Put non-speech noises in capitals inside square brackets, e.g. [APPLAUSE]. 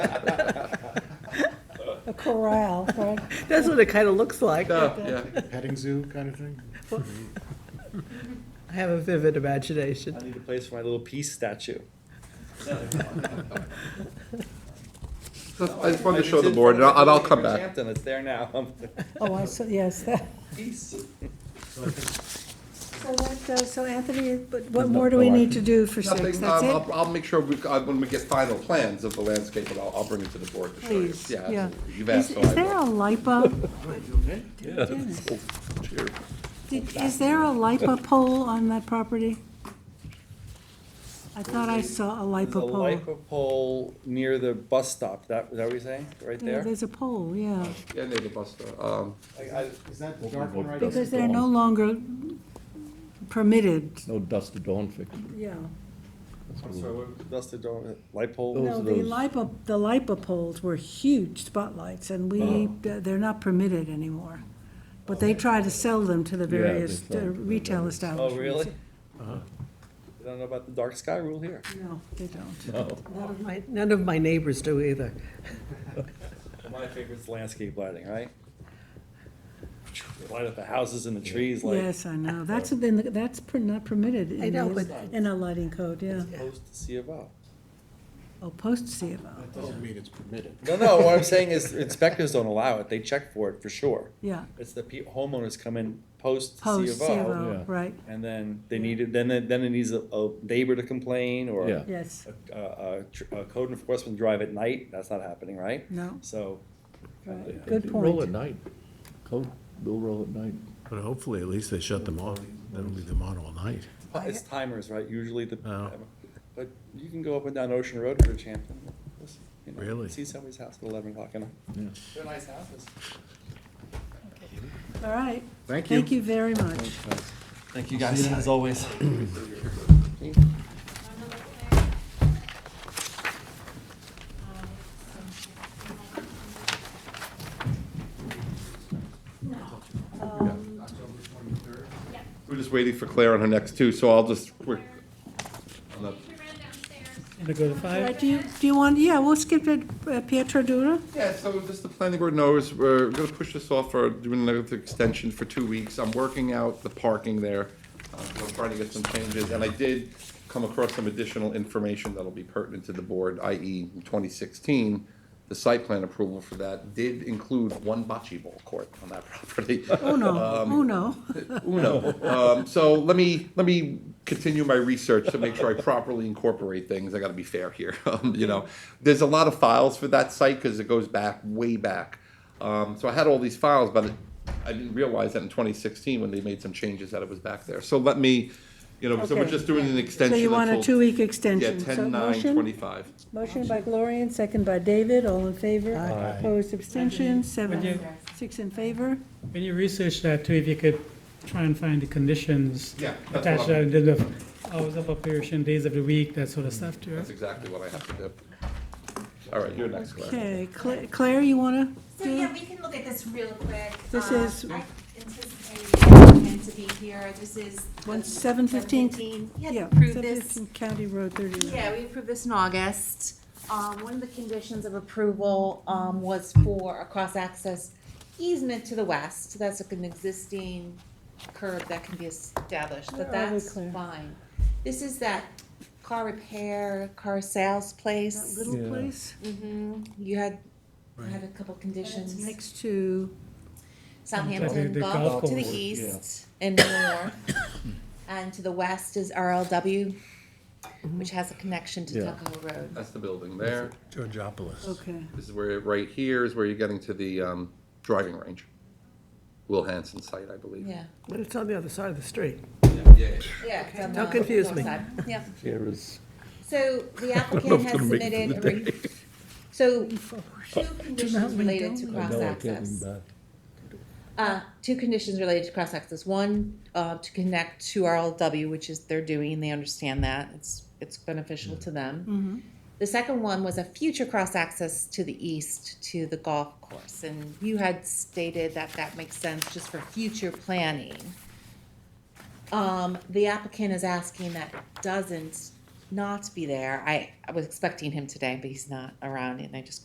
A corral, right? That's what it kind of looks like. Oh, yeah. petting zoo kind of thing? I have a vivid imagination. I need a place for my little peace statue. So I just wanted to show the board, and I'll, and I'll come back. Hampton, it's there now. Oh, I see, yes. [LAUGHS] that- Peace. So what, uh, so Anthony, but what more do we need to do for six? Nothing, That's um, it? I'll, I'll make sure we, uh, when we get final plans of the landscape, and I'll, I'll bring it to the board to show you. Please, Yeah, yeah. absolutely. You've Is asked, so is there a I LIPA, will. Cheer. did- is there a LIPA pole on that property? I thought I saw a There's LIPA a pole. lipo pole near the bus stop, that, is that what you're saying, right Yeah, there? There's a pole, yeah, Yeah, near the bus stop. Um, I- I- Is that the dark one right? because they're no longer permitted, No dust to dawn fix. yeah. I'm uh, sorry, what- That's the door, light pole? Those No, are the those- LIPA, the LIPA poles were huge spotlights, and Uh-huh. we, they're not permitted anymore. But they try to sell them to the they various sell uh, them to the retail various- establishments. Oh, really? You don't know about the dark sky rule here? No, they don't. None of my, none of my neighbors do either. My favorite's landscape lighting, right? They Light up the houses and the trees like, Yes, I know, that's been, that's per- not permitted I in know, the, but- in our lighting code, yeah. opposed to C of O. Oh, post CFO, That doesn't mean it's permitted. No, no, what I'm saying is inspectors don't allow it, they check for it for sure. yeah, It's the pe- homeowners come in post C post of O, CFO, Yeah. right, and then they need it, then, it- then it needs a, a neighbor to complain, or Yeah. yes, a, a, a tr- a code enforcement drive at night, that's not happening, right? no, So, right, They- good they Roll point. at night. Code, they'll roll at night. But hopefully, at least they shut them off. That'll leave them on all night. it's timers, right, usually the, Oh. but you can go up and down Ocean Road for Champlain. you know, Really? See somebody's house at eleven o'clock, and they're nice houses. All right, Thank you. thank you very much. Thank you guys, as always. We're just waiting for Claire on her next two, so I'll just, we're, on the- We ran downstairs. All right, do you, do you want, yeah, we'll skip it, uh, Pietro Dura? Yeah, so just the planning board knows, we're gonna push this off for, doing another extension for two weeks. I'm working out the parking there. Uh, I'm trying to get some changes, and I did come across some additional information that'll be pertinent to the board, i.e. in twenty sixteen. The site plan approval for that did include one bocce ball court on that [LAUGHS] property. Oh, no, oh, no. Uno. Um, so let me, let me continue my research to make sure I properly incorporate things. I gotta be fair here, [LAUGHS] um, you know. There's a lot of files for that site because it goes back, way back. Um, so I had all these files, but I didn't realize that in twenty sixteen, when they made some changes, that it was back there. So let me, you know, so we're Okay. just doing an So extension. you want a until- two-week extension? Yeah, So ten, nine, motion? twenty-five. Motion by Gloria and second by David, all in favor? Opposed, abstentions, Would seven, you- six in favor? When you research that too, if you could try and find the conditions. Yeah, that's what Attached I'm- to the hours of operation, days of the week, that sort of stuff too. That's exactly what I have to do. All right, you're next, Claire. Okay, Cla- Claire, you want to So yeah, do? we can look at this real quick. This Um, is- I anticipated meant to be here, this is. One- 7:15. 7:15. We had Yeah, to approve this. 715 County Road 39. Yeah, we approved this in August. Um, one of the conditions of approval, um, was for a cross-access easement to the west. So That's like an existing curb that can be established, Where but are we, that's Claire? fine. This is that car repair, car sales That place. little Yeah. place hmm you had, I had a couple conditions. next to, Southampton uh, The- the Gulf golf to the course, east and north. [COUGHS] And to the west is RLW, which has a connection to Yeah. Tuckahoe Road. That's the building there. Georgiopolis. okay, This is where, right here is where you're getting to the um, driving range. Will Hanson site, I believe. Yeah, But it's on the other side of the street. Yeah. yeah. it's on Don't the confuse north me. side. Yeah, Sarah's. so [LAUGHS] the applicant has submitted, a re- [LAUGHS] so two conditions related to I cross know I can't access. even back. Uh, two conditions related to cross access. One, uh, to connect to RLW, which is they're doing, they understand that. It's, it's beneficial to them. The second one was a future cross access to the east to the golf course. And you had stated that that makes sense just for future planning. Um, the applicant is asking that doesn't not be there. I, I was expecting him today, but he's not around, and I just